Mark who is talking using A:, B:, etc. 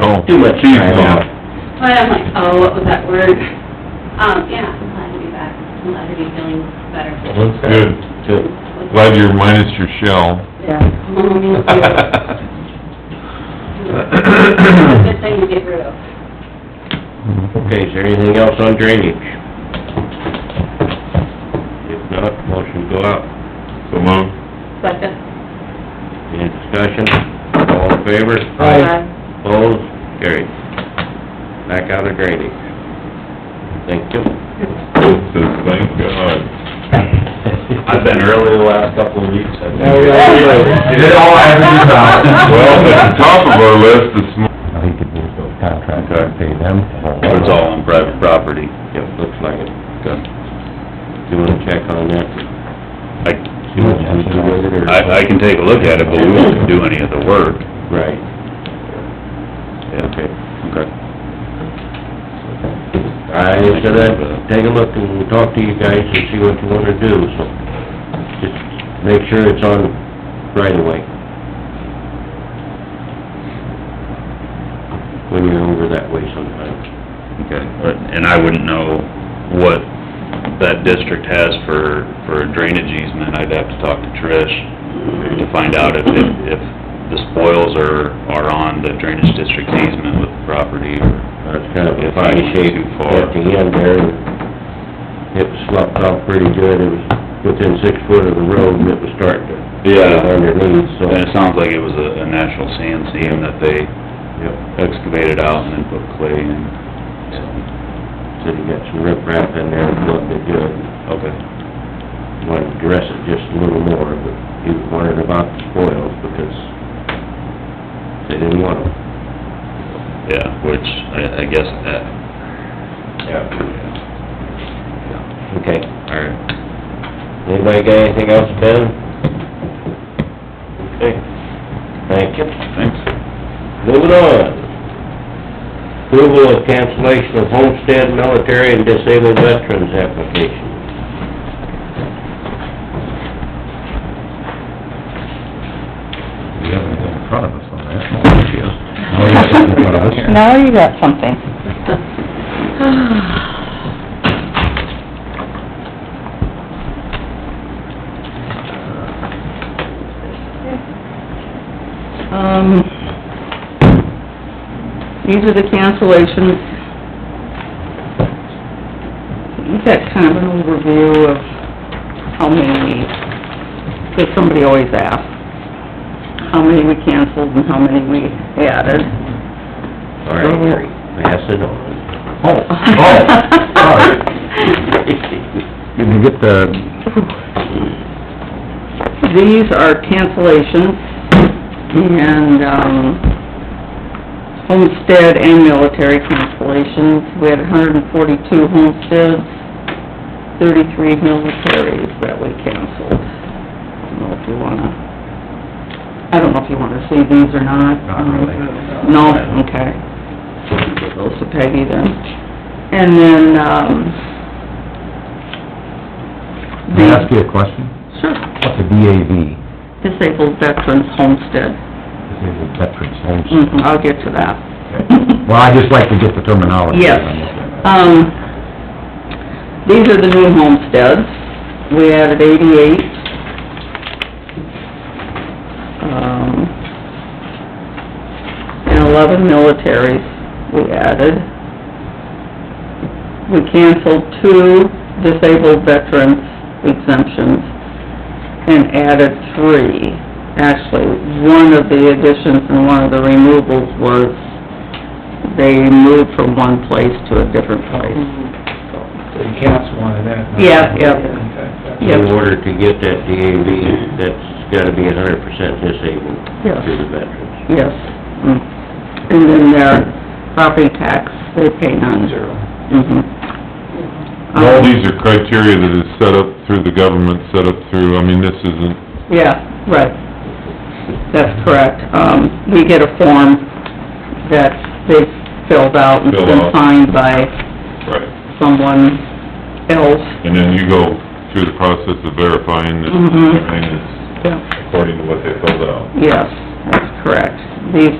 A: off.
B: Too much
A: She's
B: time off.
A: gone.
C: But I'm like, oh, what was that word? Um, yeah, I'm glad to be back, I'm glad to be feeling better.
A: That's good.
B: Good.
A: Glad you're minus your shell.
D: Yeah.
C: Good thing to get rid of.
B: Okay, is there anything else on drainage? If not, motion go out.
A: So moved.
C: uh,
D: Second.
B: Any discussion? All in favor?
D: Aye.
B: Opposed? Carried. Back out of drainage. Thank you.
A: Says, thank God.
E: I've been early the last couple of weeks.
A: Oh,
E: I've been-
D: yeah.
E: You did all I ever do, Tom.
A: Well, at the top of our list this morning.
B: I think it needs to contract
A: and
B: pay them.
E: It's all on private property.
B: Yep, looks like it.
E: Good.
B: Do you wanna check on that?
E: I,
B: See what we do with it or-
E: I, I can take a look at it, but we won't do any of the work.
B: Right.
E: Yeah.
B: Okay.
E: Okay.
B: I was gonna take a look and talk to you guys and see what you wanna do, so just make sure it's on right away. When you're over that way sometimes.
E: Okay. But, and I wouldn't know what that district has for, for drainage easement. I'd have to talk to Trish to find out if, if if the spoils are, are on the drainage district easement with the property or...
B: That's kind of a
E: If I
B: funny
E: went
B: shape
E: too far.
B: at the end there. It sloughed off pretty good, it was within six foot of the road and it was starting to underneath, so.
E: And it sounds like it was a, a natural sand seam that they excavated out and then put clay in, so,
B: Said you got some riprap in there, plugged it good.
E: okay.
B: wanted to dress it just a little more, but he was wondering about the spoils because they didn't want them.
E: Yeah, which, I, I guess that...
B: Yeah.
E: Yeah.
B: Okay.
E: All right.
B: Anybody got anything else, Ben? Okay. Thank you.
E: Thanks.
B: Moving on. Approval of cancellation of homestead, military, and disabled veterans application.
A: We have anything in front of us on that.
D: Now you got something. Um, these are the cancellations. You've got kind of an overview of how many, because somebody always asks, how many we canceled and how many we added.
B: All right, Mary, pass it on.
A: Oh, oh, sorry. Did you get the,
D: These are cancellations, and, um, homestead and military cancellations. We had hundred and forty-two homesteads, thirty-three militaries that we canceled. I don't know if you wanna, I don't know if you wanna see these or not.
A: Not really.
D: No, okay. Give Those to Peggy then. And then, um...
A: may I ask you a question?
D: Sure.
A: What's a DAV?
D: Disabled Veterans Homestead.
A: Disabled Veterans Homestead.
D: Mhm, I'll get to that.
A: Mm-hmm. Well, I just like to get the terminology.
D: Yes. Um, these are the new homesteads. We added eighty-eight. Um, and eleven militaries we added. We canceled two disabled veterans exemptions and added three. Actually, one of the additions and one of the removals was they move from one place to a different place.
F: So you cancel one of that?
D: Yeah, yeah.
F: Okay.
D: Yep.
B: In order to get that DAV, that's gotta be a hundred percent disabled
D: Yes.
B: to the veterans.
D: Yes. Mm. And then their property tax, they pay none.
F: Zero.
D: Mhm.
A: All
D: Um,
A: these are criteria that is set up through the government, set up through, I mean, this isn't
D: Yeah, right. That's correct. Um, we get a form that they've filled out and it's
A: Fill
D: been
A: out.
D: signed by
A: Right.
D: someone else.
A: And then you go through the process of verifying that
D: Mhm.
A: everything is
D: Yeah.
A: according to what they filled out.
D: Yes, that's correct. These